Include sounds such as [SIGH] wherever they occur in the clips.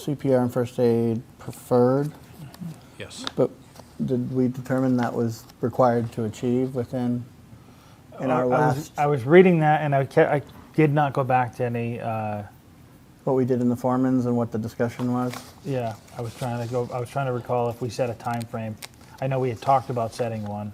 CPR and first aid preferred, Yes. but did we determine that was required to achieve within, in I our was- last, I was reading that and I kept, I did not go back to any, uh, what we did in the foremans and what the discussion was? yeah, I was trying to go, I was trying to recall if we set a time frame. I know we had talked about setting one.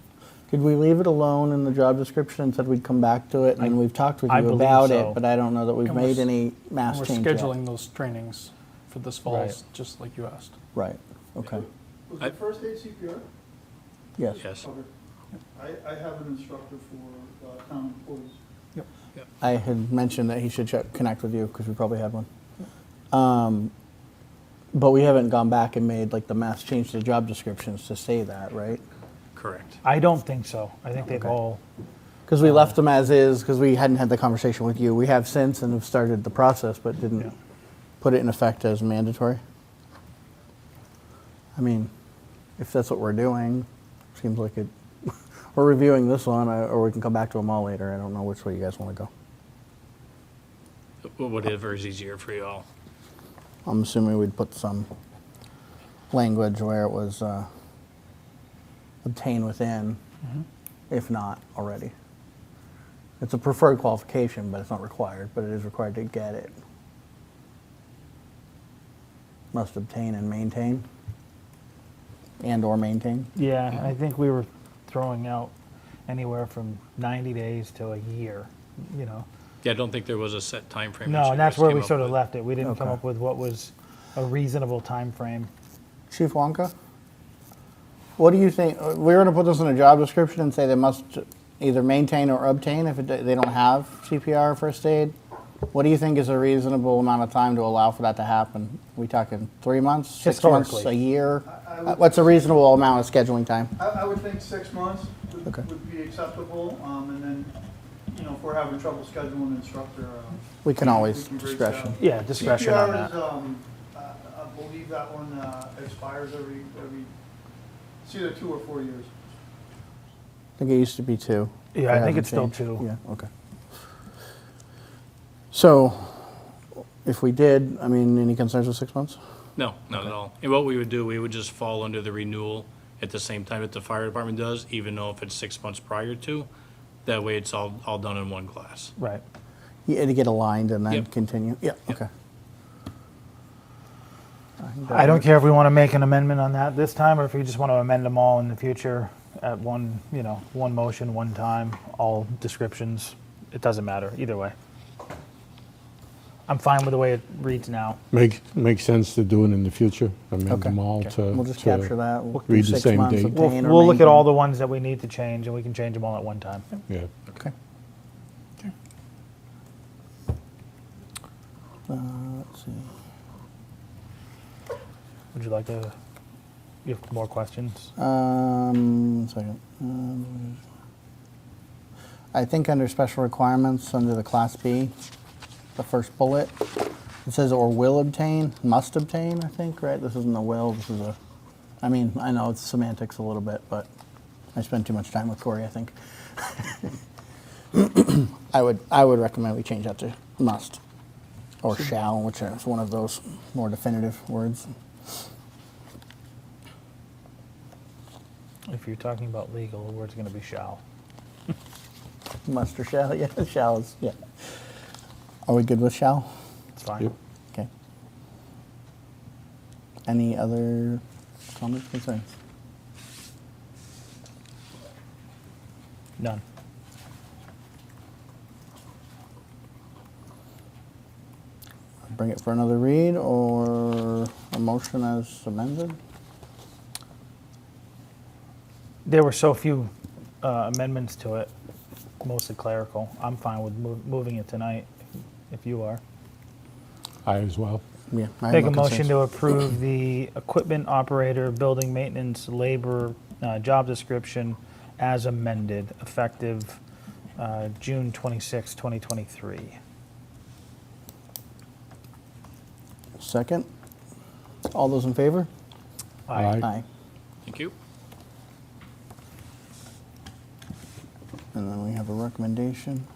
Did we leave it alone in the job description and said we'd come back to it, and then we've talked with I you believe about so. it, but I don't know that we've And we're made s- any mass And We're change yet. scheduling those trainings for this fall, Right. just like you asked. Right, okay, Was I- it first aid CPR? yes. Yes. Okay. I, I have an instructor for uh, town employees. I had mentioned that he should check, connect with you because we probably had one. Um, but we haven't gone back and made like the mass change to the job descriptions to say that, right? Correct. I don't think so. I think they've Okay. all, Because we left them as is because we hadn't had the conversation with you. We have since and have started the process, but didn't Yeah. put it in effect as mandatory. I mean, if that's what we're doing, seems like it. [LAUGHS] we're reviewing this one, uh, or we can come back to them all later. I don't know which way you guys want to go. Wh- Whatever is easier for you all. I'm assuming we'd put some language where it was uh, obtained within, if not already. It's a preferred qualification, but it's not required, but it is required to get it. Must obtain and maintain, and/or maintain. yeah, I think we were throwing out anywhere from 90 days to a year, you know? Yeah, I don't think there was a set time frame. that No, you and that's guys where came we up sort of with. left it. We didn't come Okay. up with what was a reasonable time frame. Chief Wonka, what do you think? uh, We're going to put this in a job description and say they must either maintain or obtain if it, they don't have CPR or first aid. What do you think is a reasonable amount of time to allow for that to happen? we talking three months, six months, a Historically. year? I- I Uh, would- What's a reasonable amount of scheduling time? I, I would think six months would- Okay. would be acceptable, um, and then, you know, if we're having trouble scheduling an instructor. um, We can always we can reach discretion. out. Yeah, discretion on CPR is, that. um, I I believe that one uh, expires every, every, it's either two or four years. I think it used to be two. Yeah, They I think haven't it's still changed. two. Yeah, okay. So if we did, I mean, any concerns with six months? No, not at all. And what we would do, we would just fall under the renewal at the same time that the fire department does, even though if it's six months prior to. That way, it's all, all done in one class. Right. Yeah, to get aligned and then Yep. continue. Yeah, Yep. okay. I don't care if we want to make an amendment on that this time, or if we just want to amend them all in the future at one, you know, one motion, one time, all descriptions. It doesn't matter, either way. I'm fine with the way it reads now. Make, makes sense to do it in the future, amend Okay. them all to. We'll just uh, to- capture that. We'll do read the six same months, date. We'll, obtain or we'll look at all maintain. the ones that we need to change, and we can change them all at one time. Yeah. Okay. Uh, let's see. Would you like to, you have more questions? Um, one second. Um, I think under special requirements, under the Class B, the first bullet, it says or will obtain, must obtain, I think, right? This isn't a will, this is a, I mean, I know it's semantics a little bit, but I spend too much time with Corey, I think. [COUGHS] I would, I would recommend we change that to must or shall, which is one of those more definitive words. If you're talking about legal, the word's going to be shall. Must or shall, [LAUGHS] yeah, shall is, yeah. Are we good with shall? It's fine. Yep. Okay. Any other comments, concerns? None. Bring it for another read or a motion as amended? There were so few uh, amendments to it, mostly clerical. I'm fine with mov- moving it tonight, if you are. I as well. Yeah. I have Make no a motion concerns. to approve the equipment operator, building maintenance, labor, uh, job description as amended, effective uh, June 26, 2023. Second. All those in favor? Aye. Aye. Thank you. And then we have a recommendation.